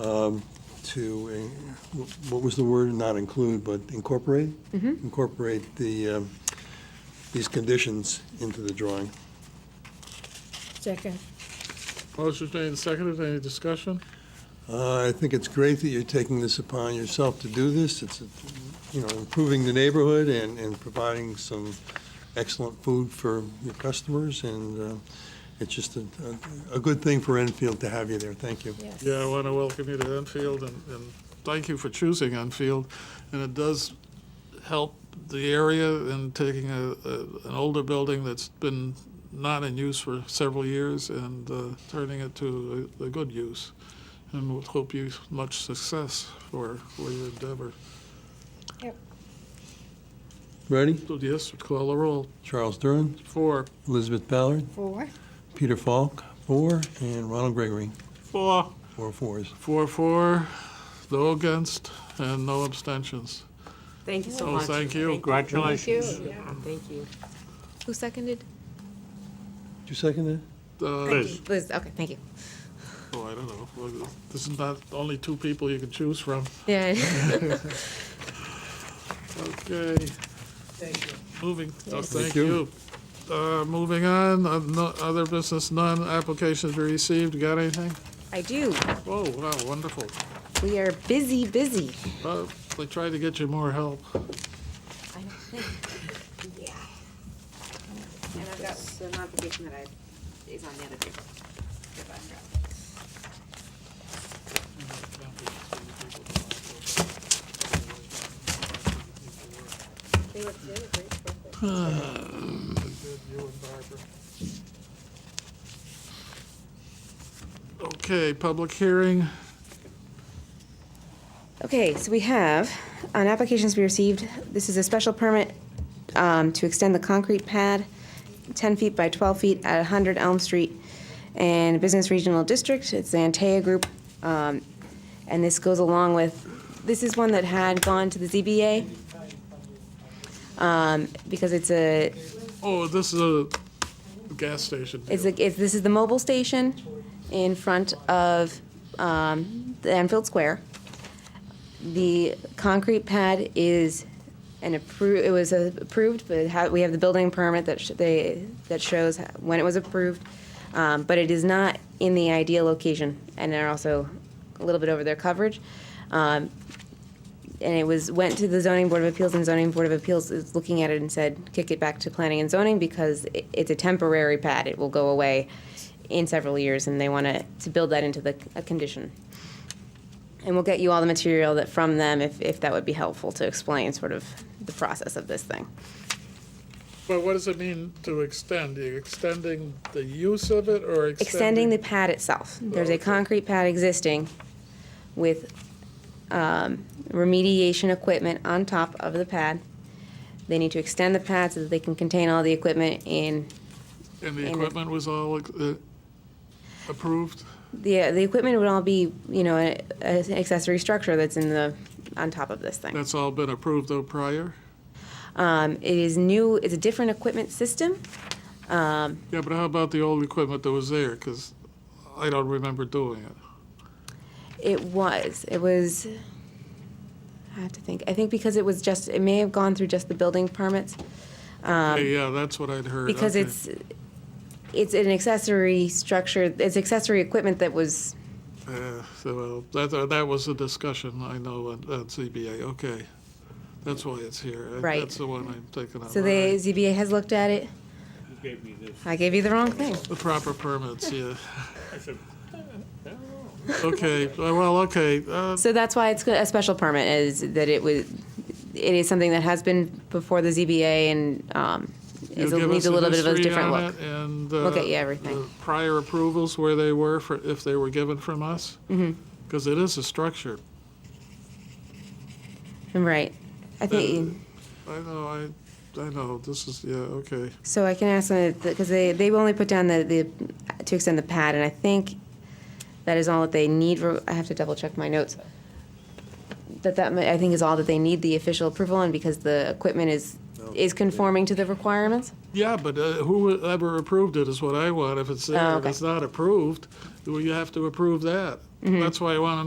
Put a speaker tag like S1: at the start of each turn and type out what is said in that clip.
S1: um, to, uh, what was the word, not include, but incorporate? Incorporate the, um, these conditions into the drawing.
S2: Second.
S3: Motion's made and seconded. Any discussion?
S1: Uh, I think it's great that you're taking this upon yourself to do this. It's, uh, you know, improving the neighborhood and, and providing some excellent food for your customers, and uh, it's just a, a a good thing for Enfield to have you there. Thank you.
S2: Yes.
S3: Yeah, I want to welcome you to Enfield and, and thank you for choosing Enfield. And it does help the area in taking a, a, an older building that's been not in use for several years and uh, turning it to a, a good use. And we hope you much success for, for your endeavor.
S1: Ready?
S3: So yes, call the roll.
S1: Charles Durin,
S3: Four.
S1: Elizabeth Ballard,
S2: Four.
S1: Peter Falk, four, and Ronald Gregory,
S3: Four.
S1: four fours.
S3: Four, four, no against, and no abstentions.
S4: Thank you so
S3: Oh,
S4: much.
S3: thank you.
S4: Congratulations.
S2: Thank you, yeah.
S4: Thank you.
S5: Who seconded?
S1: Did you second that?
S3: Uh,
S5: Liz, okay, thank you.
S3: Oh, I don't know. Well, This is not only two people you can choose from.
S5: Yeah.
S3: Okay. Thank you. Moving, oh, thank
S1: Thank you.
S3: you. Uh, Moving on, uh, no- other business, none, applications were received, got anything?
S5: I do.
S3: Oh, wow, wonderful.
S5: We are busy, busy.
S3: Uh, They tried to get you more help.
S4: And I've got some application that I, is on the other table.
S3: Okay, public hearing,
S5: Okay, so we have, on applications we received, this is a special permit um, to extend the concrete pad 10 feet by 12 feet at 100 Elm Street and Business Regional District. It's the Antea Group. um, And this goes along with, this is one that had gone to the ZBA um, because it's a,
S3: oh, this is a gas station
S5: It's,
S3: deal.
S5: the- it's, this is the mobile station in front of um, the Enfield Square. The concrete pad is an approved, it was uh, approved, but it ha- we have the building permit that sh- they, that shows when it was approved. Um, But it is not in the ideal location, and they're also a little bit over their coverage. Um, and it was, went to the zoning board of appeals, and zoning board of appeals is looking at it and said, kick it back to planning and zoning because i it's a temporary pad, it will go away in several years, and they want to, to build that into the, a condition. And we'll get you all the material that, from them, if, if that would be helpful to explain sort of the process of this thing.
S3: But what does it mean to extend? Are you extending the use of it or
S5: Extending
S3: extending?
S5: the pad itself. There's a
S3: okay.
S5: concrete pad existing with um, remediation equipment on top of the pad. They need to extend the pad so that they can contain all the equipment in,
S3: And the
S5: and-
S3: equipment was all uh, approved?
S5: the, the equipment would all be, you know, a- a accessory structure that's in the, on top of this thing.
S3: That's all been approved though prior?
S5: Um, It is new, it's a different equipment system.
S3: Yeah, but how about the old equipment that was there? Because I don't remember doing it.
S5: It was, it was, I have to think, I think because it was just, it may have gone through just the building permits.
S3: Yeah, Yeah, that's what I'd heard.
S5: Um, Because
S3: okay.
S5: it's, it's an accessory structure, it's accessory equipment that was,
S3: Uh, So uh, that, uh, that was the discussion, I know, at at ZBA, okay. That's why it's here. Uh,
S5: Right.
S3: That's the one I'm thinking of.
S5: so
S3: all
S5: the
S3: right.
S5: ZBA has looked at it. I gave you the wrong thing.
S3: The proper permits, yeah. Okay, uh, well, okay, uh,
S5: So that's why it's go- a special permit, is that it was, it is something that has been before the ZBA and, um,
S3: you'll
S5: is,
S3: give us
S5: needs a
S3: the
S5: little bit of a
S3: history
S5: different
S3: on
S5: look.
S3: it and.
S5: We'll
S3: uh,
S5: get you everything.
S3: the Prior approvals, where they were, for if they were given from us?
S5: Mm-hmm.
S3: Because it is a structure.
S5: Right. I think.
S3: I know, I, I know, this is, yeah, okay.
S5: So I can ask them, because they, they've only put down the, the, to extend the pad, and I think that is all that they need, for- I have to double check my notes. That that, mi- I think is all that they need the official approval on, because the equipment is, is conforming to the requirements.
S3: Yeah, but uh, whoever approved it is what I want. If it's there and
S5: Oh, okay. Mm-hmm.
S3: it's not approved, well, you have to approve that. That's why I want to